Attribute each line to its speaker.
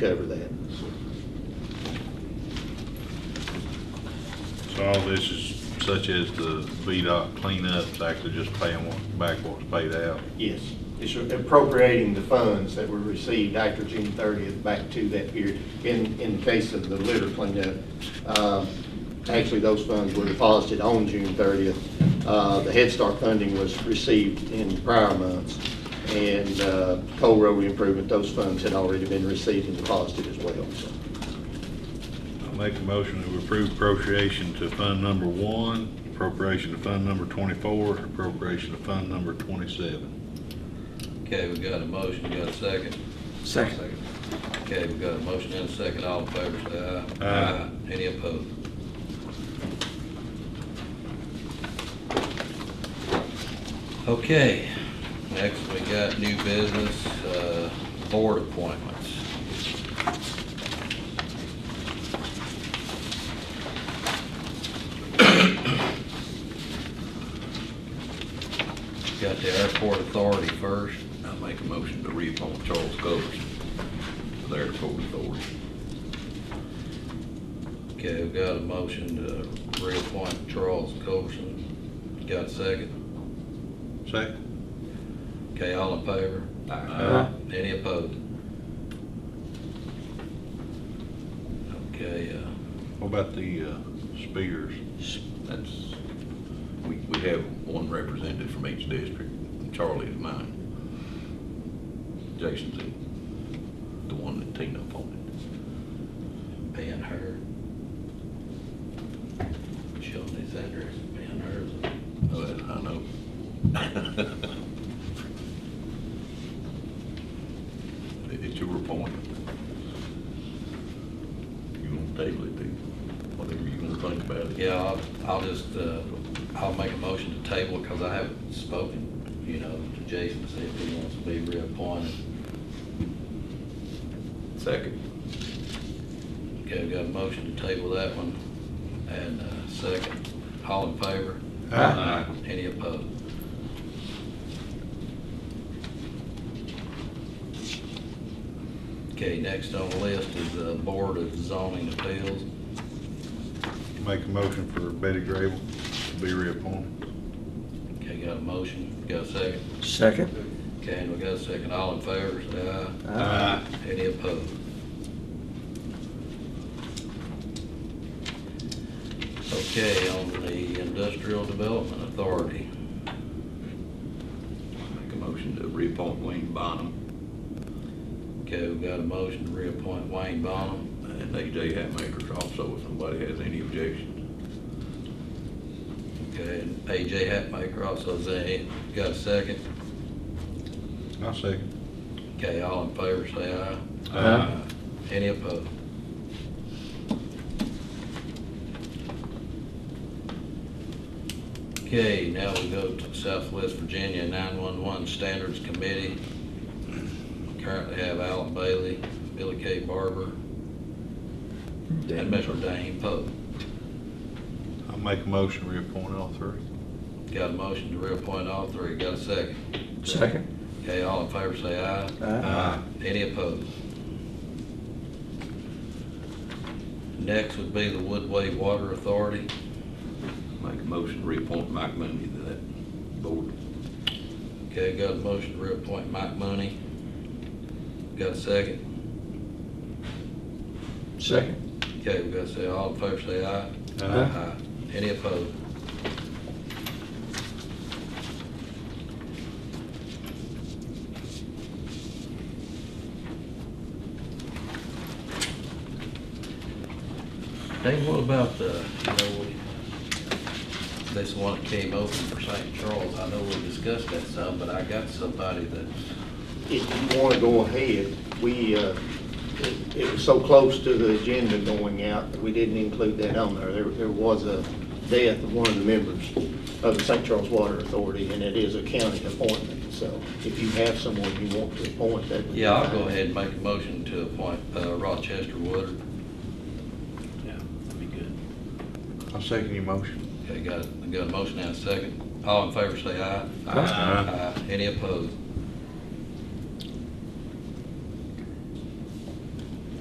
Speaker 1: cover that.
Speaker 2: So all this is such as the VDOT cleanups, actually just paying what, back what's paid out.
Speaker 1: Yes, it's appropriating the funds that were received after June thirtieth back to that period. In, in the case of the litter cleanup, um, actually, those funds were deposited on June thirtieth. Uh, The Head Start funding was received in prior months, and uh, Coal Road Improvement, those funds had already been received and deposited as well, so.
Speaker 2: I'll make a motion to approve appropriation to fund number one, appropriation to fund number twenty-four, appropriation to fund number twenty-seven.
Speaker 3: Okay, we got a motion, we got a second?
Speaker 4: Second.
Speaker 3: Okay, we got a motion and a second, all in favor, say aye.
Speaker 2: Aye.
Speaker 3: Any opposed? Okay, next we got new business, uh, board appointments. Got the airport authority first, I make a motion to reappoint Charles Covers to the airport authority. Okay, we've got a motion to reappoint Charles Coverson, got a second?
Speaker 2: Second?
Speaker 3: Okay, all in favor?
Speaker 2: Aye.
Speaker 3: Any opposed? Okay, uh,
Speaker 2: What about the, uh, Spears?
Speaker 5: That's, we, we have one representative from each district, and Charlie is mine. Jason's the, the one that Tina appointed.
Speaker 3: Ben Hur. Sheldon is under Ben Hur.
Speaker 5: Oh, that I know. It- It's your appointment. You want to table it, do, whatever you want to think about it.
Speaker 3: Yeah, I'll, I'll just, uh, I'll make a motion to table because I haven't spoken, you know, to Jason to see if he wants to be reappointed.
Speaker 5: Second.
Speaker 3: Okay, we got a motion to table that one and uh second. All in favor?
Speaker 2: Aye.
Speaker 3: Any opposed? Okay, next on the list is the Board of Zoning Appeals.
Speaker 2: Make a motion for Betty Grable to be reappointed.
Speaker 3: Okay, got a motion, got a second.
Speaker 4: Second.
Speaker 3: Okay, and we got a second. All in favor, say aye.
Speaker 2: Aye.
Speaker 3: Any opposed? Okay, on the Industrial Development Authority,
Speaker 5: Make a motion to reappoint Wayne Bonham
Speaker 3: okay, we've got a motion to reappoint Wayne Bonham.
Speaker 5: and AJ Hatmaker also, if somebody has any objections.
Speaker 3: Okay, and AJ Hatmaker also is in. Got a second?
Speaker 2: I'll second.
Speaker 3: Okay, all in favor, say aye.
Speaker 2: Aye.
Speaker 3: Any opposed? Okay, now we go to Southwest Virginia 911 Standards Committee. Currently have Alan Bailey, Billy K. Barber, and Mr. Dane Poe.
Speaker 2: I'll make a motion to reappoint all three.
Speaker 3: Got a motion to reappoint all three. Got a second?
Speaker 4: Second.
Speaker 3: Okay, all in favor, say aye.
Speaker 2: Aye.
Speaker 3: Any opposed? Next would be the Woodway Water Authority.
Speaker 5: Make a motion to reappoint Mike Monday to that board.
Speaker 3: Okay, got a motion to reappoint Mike Money. Got a second?
Speaker 4: Second.
Speaker 3: Okay, we got to say, all in favor, say aye.
Speaker 4: Aye.
Speaker 3: Any opposed? Dave, what about the, you know, we- this one that came open for St. Charles, I know we discussed that some, but I got somebody that's
Speaker 1: if you want to go ahead, we, uh, it- it was so close to the agenda going out, that we didn't include that on there. There there was a death of one of the members of the St. Charles Water Authority, and it is a county appointment. So if you have someone you want to appoint, that would be
Speaker 3: Yeah, I'll go
Speaker 1: fine.
Speaker 3: ahead and make a motion to appoint uh, Rochester Woodard.
Speaker 5: Yeah, that'd be good.
Speaker 2: I'll second your motion.
Speaker 3: Okay, got, got a motion and a second. All in favor, say aye.
Speaker 4: Aye.
Speaker 3: Any opposed?